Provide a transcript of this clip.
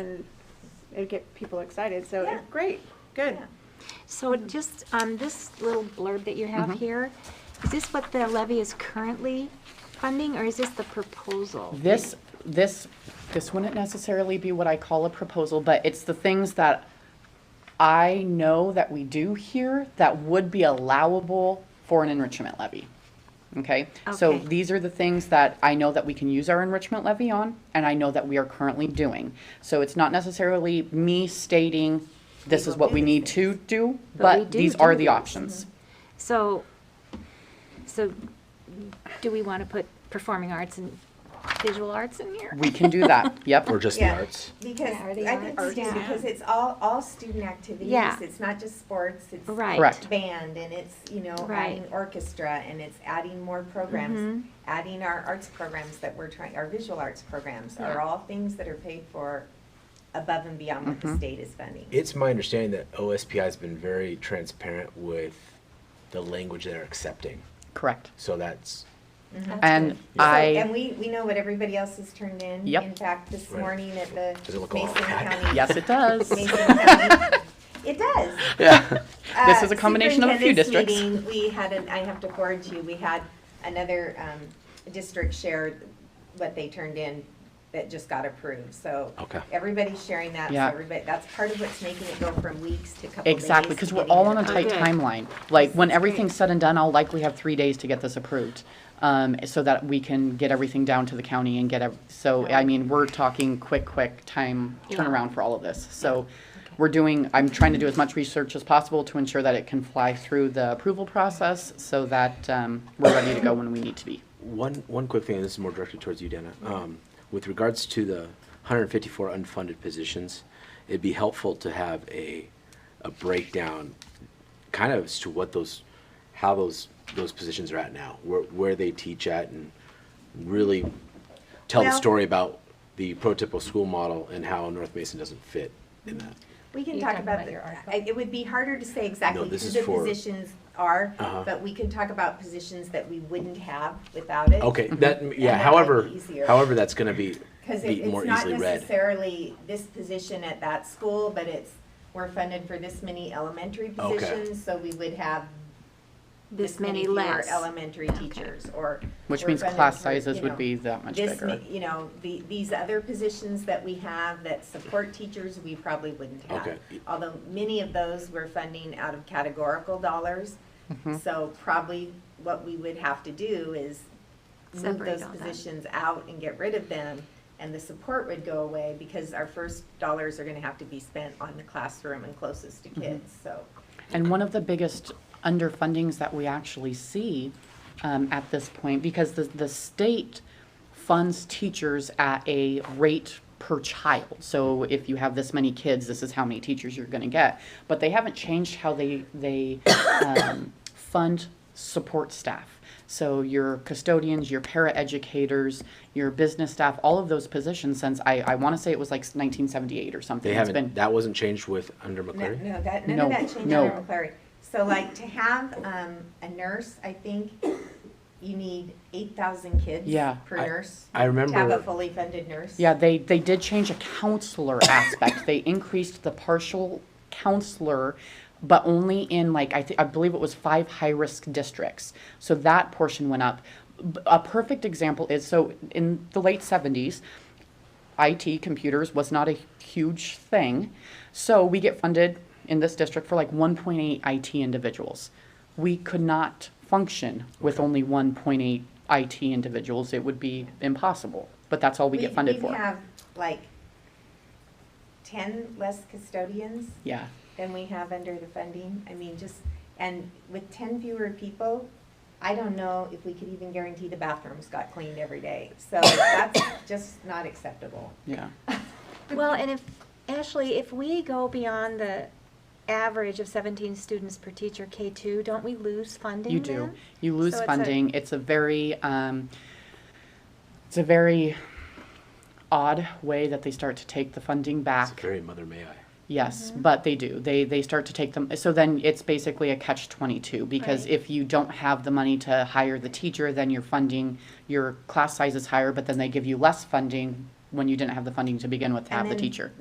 and it'd get people excited, so, Yeah. great, good. Yeah. So it just, um, this little blurb that you Mm-hmm. have here, is this what the levy is currently funding, or is this the proposal? This, this, this wouldn't necessarily be what I call a proposal, but it's the things that I know that we do here that would be allowable for an enrichment levy. Okay? So Okay. these are the things that I know that we can use our enrichment levy on, and I know that we are currently doing. So it's not necessarily me stating, this is what we need to do, But we but do these are do the these. options. So, so do we want to put performing arts and visual arts in here? We can do that, yep. Or just the Yeah. arts. Because Yeah, I or the think arts, it's yeah. because it's all, all student activities. Yeah. It's not just sports, it's Right. Correct. band and it's, you know, Right. Mm-hmm. adding orchestra and it's adding more programs. Adding our arts programs that we're trying, our visual arts programs are Yeah. all things that are paid for above and beyond what Mm-hmm. the state is funding. It's my understanding that OSPI has been very transparent with the language they're accepting. Correct. So that's, Mm-hmm. And So- I. And we, we know what everybody else has turned in. Yep. In fact, this Right. morning at the Does it look all Mason bad? County. Yes, it does. Mason County. It does. yeah. This Uh, is a combination of a few superintendent's districts. meeting, We had, an- I have to forward to you, we had another um, district share what they turned in that just got approved, so. Okay. Everybody's sharing that, so Yeah. everybody, that's part of what's making it go from weeks to couple days. Exactly, because to we're getting all it on a approved. tight timeline. Like, when everything's said and done, I'll likely have three days to get this approved. Um, so that we can get everything down to the county and get, ev- so, I mean, we're talking quick, quick time turnaround for all of this. So, we're doing, I'm trying to do as much research as possible to ensure that it can fly through the approval process so that, um, we're ready to go when we need to be. One, one quick thing, and this is more directed towards you, Dana. Um, with regards to the 154 unfunded positions, it'd be helpful to have a, a breakdown kind of as to what those, how those, those positions are at now, where, where they teach at and really tell the Well- story about the prototypical school model and how North Mason doesn't fit in that. We can You're talk talking about, about the- your article? I- it would be harder to say exactly No, who this is the for- positions are, Uh-huh. but we can talk about positions that we wouldn't have without it. Mm-hmm. Okay, that, yeah, that might however, be easier. however, that's gonna be, Because be it, more it's not easily read. necessarily this position at that school, but it's, we're funded for this many elementary Okay. positions, so we would have This many fewer less? Elementary teachers, or. Which we're means funded class for, sizes you would know, be that much This, ma- bigger. you know, the, these other positions that we have that support teachers, we probably wouldn't have. Okay. Although many of those we're funding out of categorical dollars, Mm-hmm. so probably what we would have to do is move Separate those all that. positions out and get rid of them, and the support would go away, because our first dollars are gonna have to be spent on the classroom and closest to Mm-hmm. kids, so. And one of the biggest underfundings that we actually see um, at this point, because the, the state funds teachers at a rate per child. So if you have this many kids, this is how many teachers you're gonna get. But they haven't changed how they, they um, fund support staff. So your custodians, your paraeducators, your business staff, all of those positions since, I, I wanna say it was like nineteen seventy-eight or something. They It's haven't, been- that wasn't changed with under No, McCleary? no, that, none of No, that changed no. under McCleary. So like to have, um, a nurse, I think, you need eight thousand kids Yeah. per I- nurse. I To have a remember, fully funded nurse. Yeah, they, they did change a counselor aspect. They increased the partial counselor, but only in like, I, thi- I believe it was five high-risk districts. So that portion went up. B- A perfect example is, so in the late seventies, IT, computers, was not a huge thing. So we get funded in this district for like 1.8 IT individuals. We could not function with only 1.8 IT individuals. It would be impossible, but that's all we get funded We for. have like ten less custodians Yeah, than we have under the funding. I mean, just, and with ten fewer people, I don't know if we could even guarantee the bathrooms got cleaned every day. So that's just not acceptable. yeah. Well, and if, Ashley, if we go beyond the average of seventeen students per teacher, K two, don't we lose funding You do. then? You lose So it's a- funding. It's a very, um, it's a very odd way that they start to take the funding it's back. very mother may I. Yes, Mm-hmm. but they do. They they start to take them. So then it's basically a catch twenty two because Right. if you don't have the money to hire the teacher, then your funding your class size is higher, but then they give you less funding when you didn't have the funding to begin with to And have the then teacher.